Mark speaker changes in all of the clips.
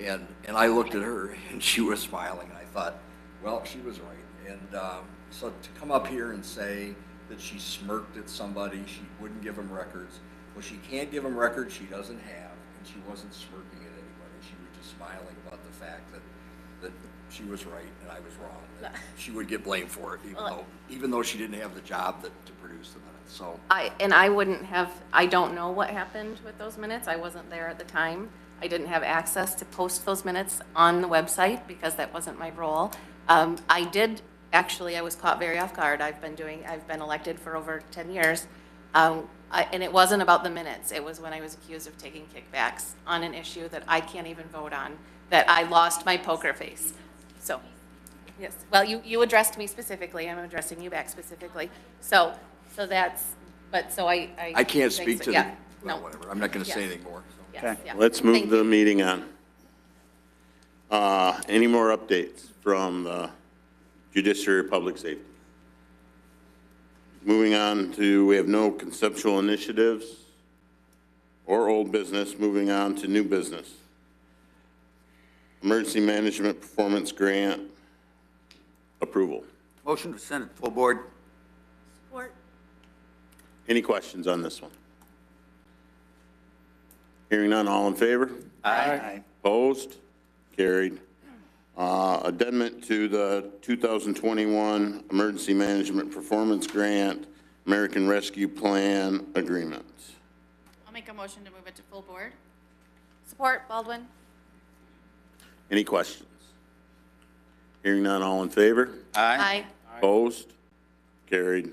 Speaker 1: And, and I looked at her and she was smiling and I thought, well, she was right. And um, so to come up here and say that she smirked at somebody, she wouldn't give them records. Well, she can't give them records she doesn't have and she wasn't smirking at anybody. She was just smiling about the fact that, that she was right and I was wrong. that She would get blamed for it even though, even though she didn't have the job that, to produce the minutes. So,
Speaker 2: I, and I wouldn't have, I don't know what happened with those minutes. I wasn't there at the time. I didn't have access to post those minutes on the website because that wasn't my role. Um, I did, actually, I was caught very off guard. I've been doing, I've been elected for over 10 years. Um, I- And it wasn't about the minutes. It was when I was accused of taking kickbacks on an issue that I can't even vote on, that I lost my poker face. So, yes, well, you, you addressed me specifically, I'm addressing you back specifically. So, so that's, but, so I, I.
Speaker 1: I can't speak to the,
Speaker 2: Yeah,
Speaker 1: well,
Speaker 2: no,
Speaker 1: whatever, I'm not gonna say
Speaker 2: Yes.
Speaker 1: anything more. so.
Speaker 2: yes, yeah.
Speaker 3: Let's move
Speaker 2: Thank
Speaker 3: the
Speaker 2: you.
Speaker 3: meeting on. Uh, Any more updates from the Judiciary or Public Safety? Moving on to, we have no conceptual initiatives or old business, moving on to new business. Emergency Management Performance Grant approval.
Speaker 4: Motion to send it full board.
Speaker 3: Any questions on this one? Hearing none, all in favor?
Speaker 4: Aye.
Speaker 3: Opposed? Carried. Uh, Addendum to the 2021 Emergency Management Performance Grant, American Rescue Plan Agreement.
Speaker 5: I'll make a motion to move it to full board.
Speaker 2: Support Baldwin?
Speaker 3: Any questions? Hearing none, all in favor?
Speaker 4: Aye.
Speaker 2: Aye.
Speaker 3: Opposed? Carried.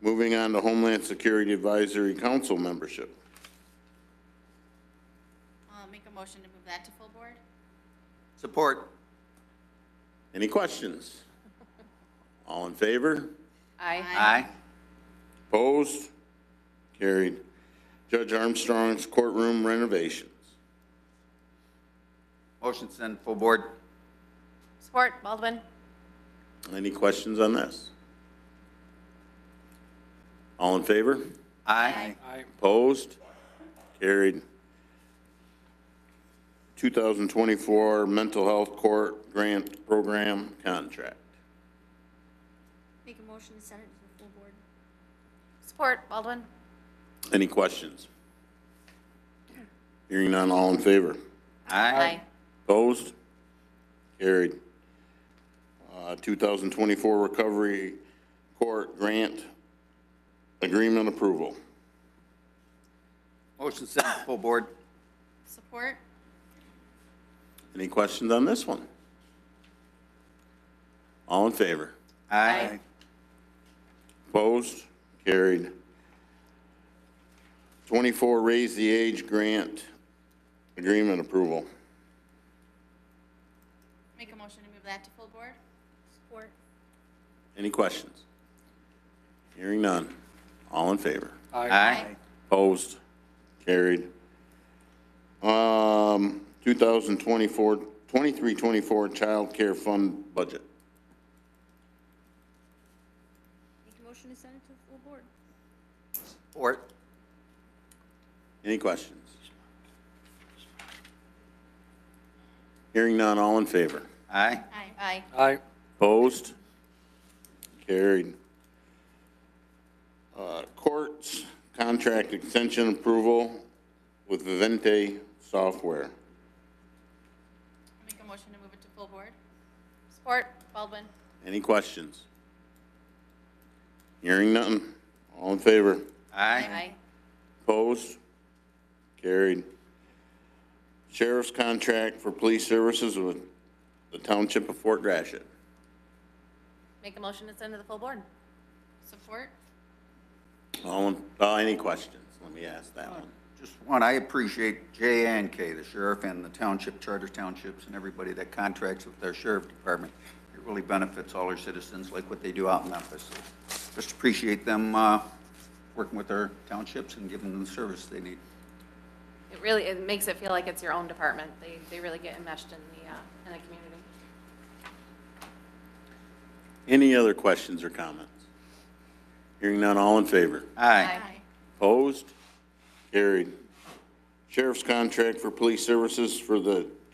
Speaker 3: Moving on to Homeland Security Advisory Council membership.
Speaker 5: I'll make a motion to move that to full board.
Speaker 4: Support.
Speaker 3: Any questions? All in favor?
Speaker 2: Aye.
Speaker 4: Aye.
Speaker 3: Opposed? Carried. Judge Armstrong's courtroom renovations.
Speaker 4: Motion to send full board.
Speaker 2: Support Baldwin?
Speaker 3: Any questions on this? All in favor?
Speaker 4: Aye.
Speaker 3: Opposed? Carried. 2024 Mental Health Court Grant Program Contract.
Speaker 5: Make a motion to send it to the full board.
Speaker 2: Support Baldwin?
Speaker 3: Any questions? Hearing none, all in favor?
Speaker 4: Aye.
Speaker 3: Opposed? Carried. Uh, 2024 Recovery Court Grant Agreement Approval.
Speaker 4: Motion to send it full board.
Speaker 5: Support?
Speaker 3: Any questions on this one? All in favor?
Speaker 4: Aye.
Speaker 3: Opposed? Carried. 24, raise the age grant agreement approval.
Speaker 5: Make a motion to move that to full board. Support.
Speaker 3: Any questions? Hearing none. All in favor?
Speaker 4: Aye.
Speaker 3: Opposed? Carried. Um, 2024, 2324 child care fund budget.
Speaker 5: Make a motion to send it to the full board.
Speaker 4: Support.
Speaker 3: Any questions? Hearing none, all in favor?
Speaker 4: Aye.
Speaker 5: Aye. Aye.
Speaker 6: Aye.
Speaker 3: Opposed? Carried. Uh, Courts contract extension approval with Vivente Software.
Speaker 5: I'll make a motion to move it to full board.
Speaker 2: Support
Speaker 5: Baldwin?
Speaker 3: Any questions? Hearing none. All in favor?
Speaker 4: Aye.
Speaker 3: Opposed? Carried. Sheriff's contract for police services with the Township of Fort Gratiot.
Speaker 2: Make a motion to send to the full board?
Speaker 5: Support?
Speaker 3: All, in- uh, any questions? Let me ask that one.
Speaker 4: Just one, I appreciate J and K, the sheriff and the township, charter townships, and everybody that contracts with their sheriff department. It really benefits all our citizens, like what they do out in Memphis. Just appreciate them, uh, working with their townships and giving them the service they need.
Speaker 2: It really, it makes it feel like it's your own department. They, they really get enmeshed in the, uh, in the community.
Speaker 3: Any other questions or comments? Hearing none, all in favor?
Speaker 4: Aye.
Speaker 3: Opposed? Carried. Sheriff's contract for police services for the